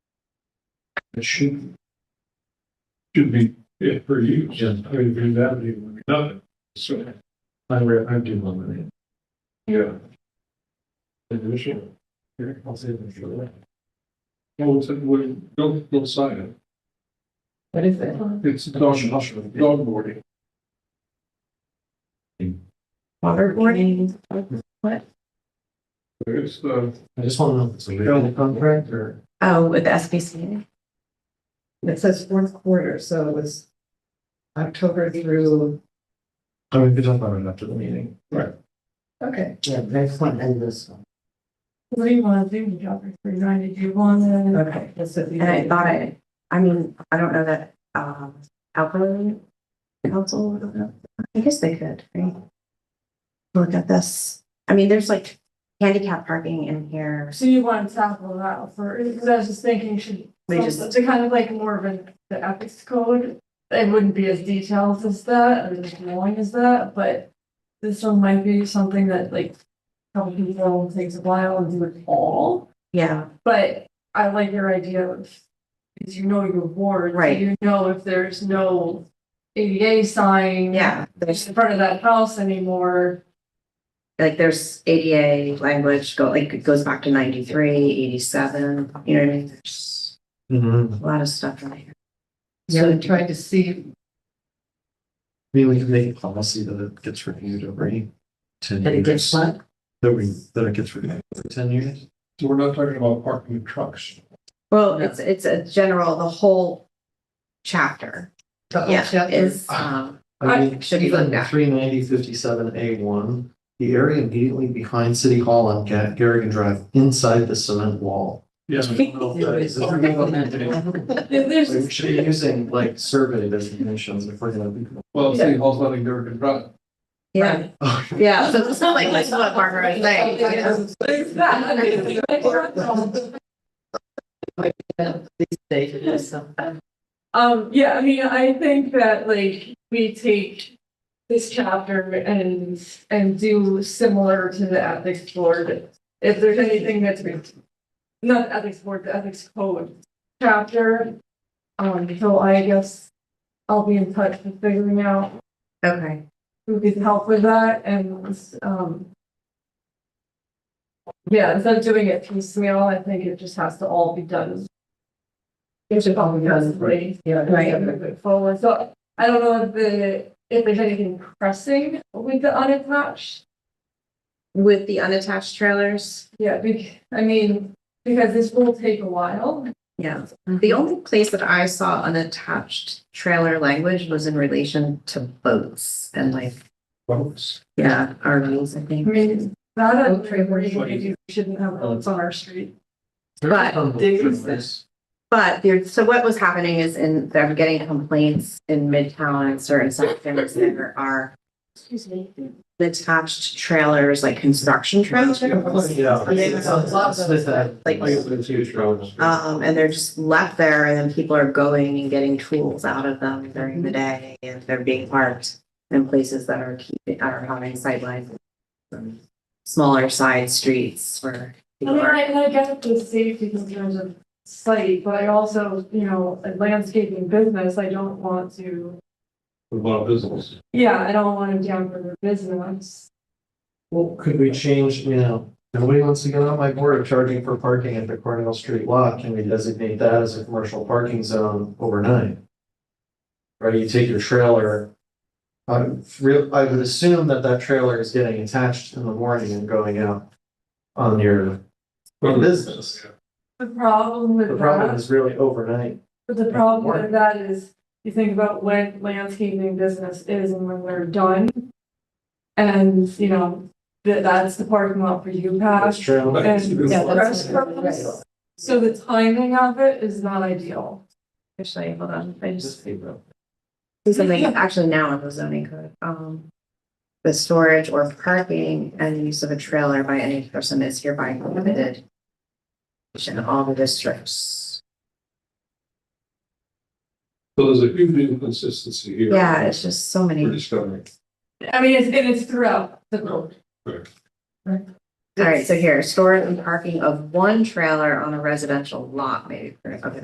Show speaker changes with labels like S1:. S1: it should. Should be, yeah, per use. Yeah. I mean, Green Avenue would be nothing, so. I re, I do love it. Yeah. Initial. Here, I'll say it for that. Well, it's, we, don't, don't sign it.
S2: What is it?
S1: It's dog, dog boarding.
S2: Waterboarding? What?
S1: It's uh, the.
S3: I just want to know if it's a legal contract or
S2: Oh, with SBC.
S4: It says fourth quarter, so it was October through,
S3: I mean, we don't know enough to the meeting.
S4: okay.
S3: Yeah, next one and this one.
S5: What do you want to do, Dr. Freeman? Did you want to?
S4: Okay. that's what we
S2: And I
S4: did.
S2: thought I, I mean, I don't know that, um, alcohol council, I don't know. I guess they could, right? Look at this. I mean, there's like handicap parking in here.
S5: So you want to tackle that for, because I was just thinking, should,
S2: We just-
S5: to kind of like more of an, the ethics code. It wouldn't be as detailed as that, and as long as that, but this one might be something that like. Some people takes a while and do it all,
S2: Yeah,
S5: but I like your idea of, because you know your ward. so
S2: Right.
S5: You know if there's no ADA sign.
S2: yeah. There's
S5: In front of that house anymore.
S2: like there's ADA language go, like it goes back to 93, 87, you know what I mean? There's
S3: Mm-hmm.
S2: a lot of stuff in here.
S4: Yeah, I tried to see,
S3: I mean, we can make a policy that it gets reviewed every ten years.
S4: but it gets what?
S3: That we, that it gets reviewed every ten years.
S1: So we're not talking about parking trucks.
S2: Well, it's, it's a general, the whole chapter.
S4: The whole
S2: Yeah,
S4: chapter.
S2: is, um,
S3: I mean,
S2: should be looked
S3: even
S2: at.
S3: three ninety fifty-seven A one, the area immediately behind City Hall on Ga- Garrigan Drive, inside the cement wall.
S1: Yeah.
S3: I don't know if that is-
S5: If there's,
S3: We should be using like survey designations if we're gonna be.
S1: Well, City Hall's not in Durgan Drive.
S2: yeah,
S5: Oh.
S2: yeah. So it's not like, like what Barbara was saying. you know?
S5: there's Um, that.
S4: These days, it is something.
S5: Um, yeah, I mean, I think that like we take this chapter and, and do similar to the ethics board. If there's anything that's, re- not ethics board, the ethics code chapter. Um, so I guess I'll be in touch with figuring out
S2: Okay,
S5: who can help with that and, um. Yeah, instead of doing it piecemeal, I think it just has to all be done. It should all be done, right?
S4: Yeah,
S2: Right.
S5: Moving forward, so I don't know if the, if there's anything pressing with the unattached.
S2: with the unattached trailers,
S5: Yeah, bec- I mean, because this will take a while.
S2: yeah.
S5: Mm-hmm.
S2: The only place that I saw unattached trailer language was in relation to boats and like,
S1: Boats.
S2: yeah, RVs, I
S5: I
S2: think.
S5: mean, that I
S4: Boat trailer.
S5: agree with you. we shouldn't have boats on our street.
S2: But-
S4: Diggers.
S2: But there, so what was happening is in, they're getting complaints in Midtown and certain sections there are
S5: Excuse me.
S2: attached trailers, like construction trailers.
S3: Yeah.
S2: And they- Like, um, and they're just left there and then people are going and getting tools out of them during the day and they're being parked in places that are keeping, are having sidelines. um, Smaller side streets where.
S5: I
S2: people
S5: mean,
S2: are-
S5: I, and I get the safety concerns of site, but I also, you know, a landscaping business, I don't want to,
S1: What about business?
S5: yeah, I don't want to damper their business.
S3: Well, could we change, you know, nobody wants to get on my board of charging for parking at the Cornell Street lot, can we designate that as a commercial parking zone overnight? Or you take your trailer. I real, I would assume that that trailer is getting attached in the morning and going out on your business.
S5: The problem
S3: The
S5: with
S3: problem
S5: that,
S3: is really overnight.
S5: but the problem with that is, you think about when landscaping business is and when we're done. And, you know, that, that's the parking lot for you,
S3: This
S5: Pat,
S3: trailer,
S5: and
S1: Yeah,
S4: that's-
S5: restaurants. So the timing of it is not ideal.
S2: Actually, hold on, I just.
S3: just be real.
S2: do something actually now in the zoning code, um. The storage or parking and use of a trailer by any person is hereby prohibited. In all the districts.
S1: So there's a huge inconsistency here.
S2: Yeah, it's just so many.
S1: We're discovering.
S5: I mean, it's, and it's throughout the
S2: All right, so here, storage and parking of one trailer on a residential lot may be prohibited.